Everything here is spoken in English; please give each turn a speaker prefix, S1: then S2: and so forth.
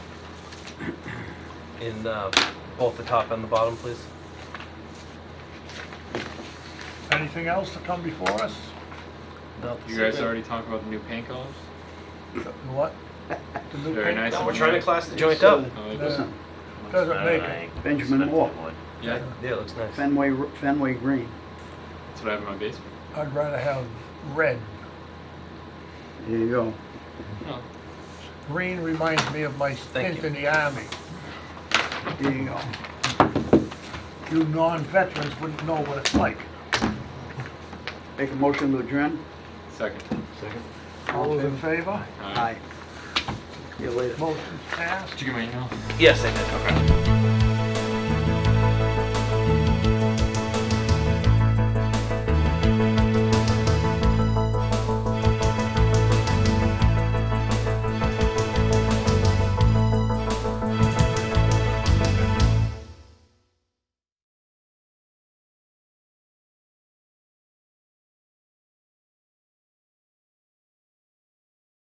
S1: in uh, both the top and the bottom, please?
S2: Anything else to come before us?
S3: You guys already talked about the new paint colors?
S2: What?
S3: Very nice.
S1: No,
S3: and
S1: we're trying to
S3: nice.
S1: class the joint up.
S3: I like that.
S2: Doesn't doesn't make it.
S4: Benjamin Moore,
S3: Yeah,
S1: Yeah, it looks nice.
S4: Fenway, Fenway Green.
S3: that's what I have in my basement.
S2: I'd rather have red.
S4: There you go.
S3: Oh,
S2: Green reminds me of my
S1: Thank
S2: stint
S1: you.
S2: in the army. um,
S4: There you go.
S2: You non-veterans wouldn't know what it's like.
S4: Make a motion to adjourn.
S3: second.
S2: All in favor?
S3: Alright.
S4: See you later.
S2: Motion passed.
S3: Did you get my email?
S1: Yes, I did.
S3: Okay.